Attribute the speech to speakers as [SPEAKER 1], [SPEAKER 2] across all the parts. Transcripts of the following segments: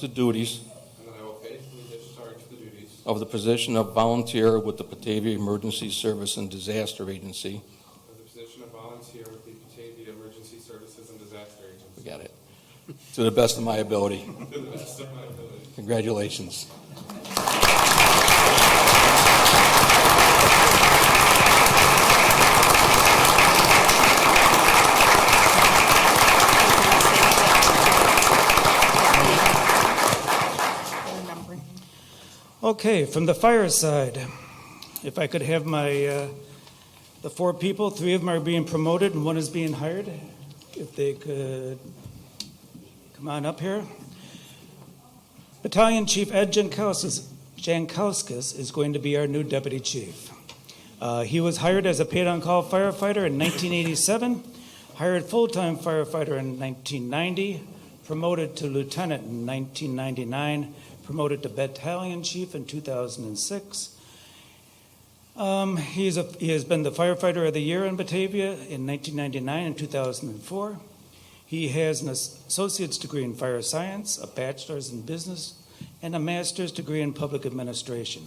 [SPEAKER 1] the duties
[SPEAKER 2] and that I will faithfully discharge the duties
[SPEAKER 1] of the position of volunteer with the Batavia Emergency Service and Disaster Agency.
[SPEAKER 2] of the position of volunteer with the Batavia Emergency Services and Disaster
[SPEAKER 1] We
[SPEAKER 2] Agency
[SPEAKER 1] got it. To the best of my ability.
[SPEAKER 2] to the best of my ability.
[SPEAKER 1] Congratulations.
[SPEAKER 3] Okay, from the fire side, if I could have my, uh, the four people, three of them are being promoted and one is being hired, if they could come on up here. Battalion Chief Ed Jankowskis Jankowskis is going to be our new deputy chief. Uh, He was hired as a paid-on-call firefighter in 1987, hired full-time firefighter in 1990, promoted to lieutenant in 1999, promoted to battalion chief in 2006. Um, he, is a, he has been the firefighter of the year in Batavia in 1999 and 2004. He has an associate's degree in fire science, a bachelor's in business, and a master's degree in public administration.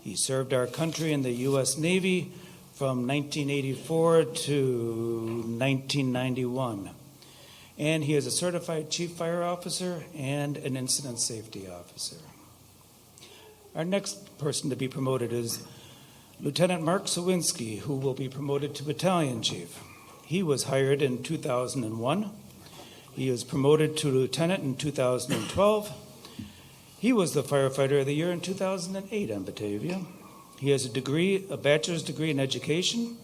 [SPEAKER 3] He served our country in the U.S. Navy from 1984 to 1991 and he is a certified chief fire officer and an incident safety officer. Our next person to be promoted is Lieutenant Mark Sawinski, who will be promoted to battalion chief. He was hired in 2001. He was promoted to lieutenant in 2012. He was the firefighter of the year in 2008 on Batavia. He has a degree, a bachelor's degree in education.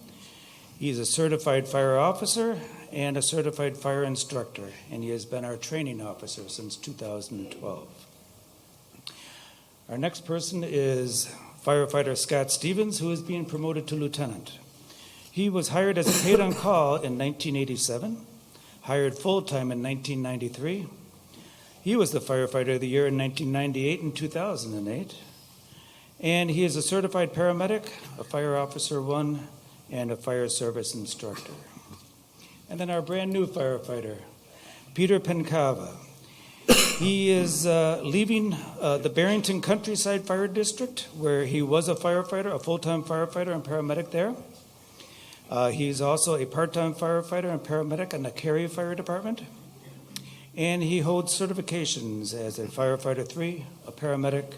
[SPEAKER 3] He is a certified fire officer and a certified fire instructor, and he has been our training officer since 2012. Our next person is firefighter Scott Stevens, who is being promoted to lieutenant. He was hired as a paid on call in 1987, hired full time in 1993. He was the firefighter of the year in 1998 and 2008. And he is a certified paramedic, a fire officer one, and a fire service instructor. And then our brand new firefighter, Peter Pencava. He is uh, leaving uh, the Barrington Countryside Fire District, where he was a firefighter, a full time firefighter and paramedic there. Uh, he's also a part time firefighter and paramedic in the Cary Fire Department. And he holds certifications as a firefighter three, a paramedic,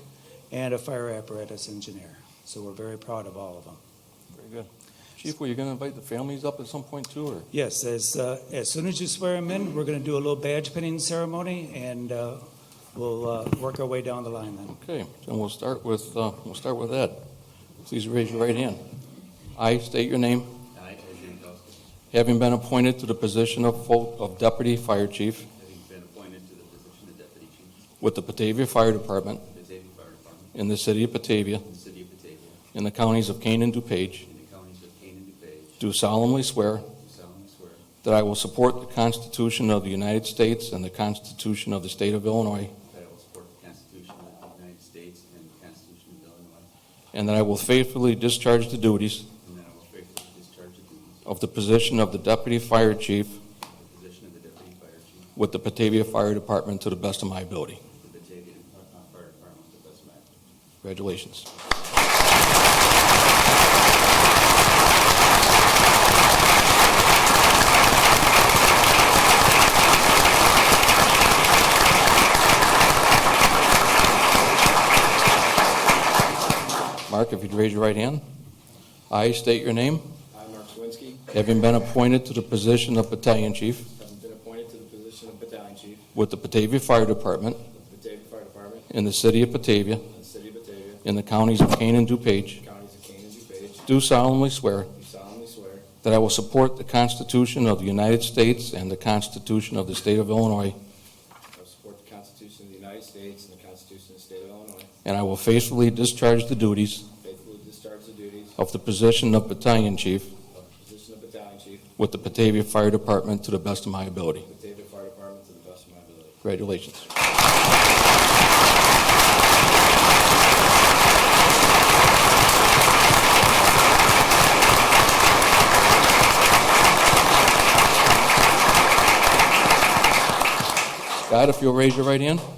[SPEAKER 3] and a fire apparatus engineer. So we're very proud of all of them.
[SPEAKER 1] Very good. Chief, were you going to invite the families up at some point too, or?
[SPEAKER 3] Yes, as, uh, as soon as you swear them in, we're going to do a little badge pinning ceremony, and uh, we'll uh, work our way down the line then.
[SPEAKER 1] Okay, then we'll start with, uh, we'll start with Ed. Please raise your right hand. I state your name,
[SPEAKER 4] I, Ed Jankowski,
[SPEAKER 1] having been appointed to the position of full- of Deputy Fire Chief
[SPEAKER 4] having been appointed to the position of Deputy Chief
[SPEAKER 1] with the Batavia Fire Department
[SPEAKER 4] of the Batavia Fire Department
[SPEAKER 1] in the city of Batavia
[SPEAKER 4] in the City of Batavia,
[SPEAKER 1] in the counties of Kane and DuPage,
[SPEAKER 4] in the counties of Kane and DuPage,
[SPEAKER 1] do solemnly swear
[SPEAKER 4] do solemnly swear
[SPEAKER 1] that I will support the Constitution of the United States and the Constitution of the State of Illinois,
[SPEAKER 4] that I will support the Constitution of the United States and the Constitution of Illinois,
[SPEAKER 1] and that I will faithfully discharge the duties
[SPEAKER 4] and that I will faithfully discharge the duties
[SPEAKER 1] of the position of the Deputy Fire Chief
[SPEAKER 4] of the position of the Deputy Fire Chief
[SPEAKER 1] with the Batavia Fire Department to the best of my ability.
[SPEAKER 4] of the Batavia uh, Fire Department to the best of my ability.
[SPEAKER 1] Congratulations. Mark, if you'd raise your right hand. I state your name,
[SPEAKER 5] I, Mark Swinsky,
[SPEAKER 1] having been appointed to the position of Battalion Chief
[SPEAKER 5] have been appointed to the position of Battalion Chief
[SPEAKER 1] with the Batavia Fire Department
[SPEAKER 5] of the Batavia Fire Department
[SPEAKER 1] in the City of Batavia
[SPEAKER 5] in the City of Batavia,
[SPEAKER 1] in the counties of Kane and DuPage,
[SPEAKER 5] counties of Kane and DuPage,
[SPEAKER 1] do solemnly swear
[SPEAKER 5] do solemnly swear
[SPEAKER 1] That I will support the Constitution of the United States and the Constitution of the State of Illinois,
[SPEAKER 5] I will support the Constitution of the United States and the Constitution of the State of Illinois,
[SPEAKER 1] and I will faithfully discharge the duties
[SPEAKER 5] faithfully discharge the duties
[SPEAKER 1] of the position of Battalion Chief
[SPEAKER 5] of the position of Battalion Chief
[SPEAKER 1] with the Batavia Fire Department to the best of my ability.
[SPEAKER 5] of the Batavia Fire Department to the best of my ability.
[SPEAKER 1] Congratulations. Scott, if you'll raise your right hand.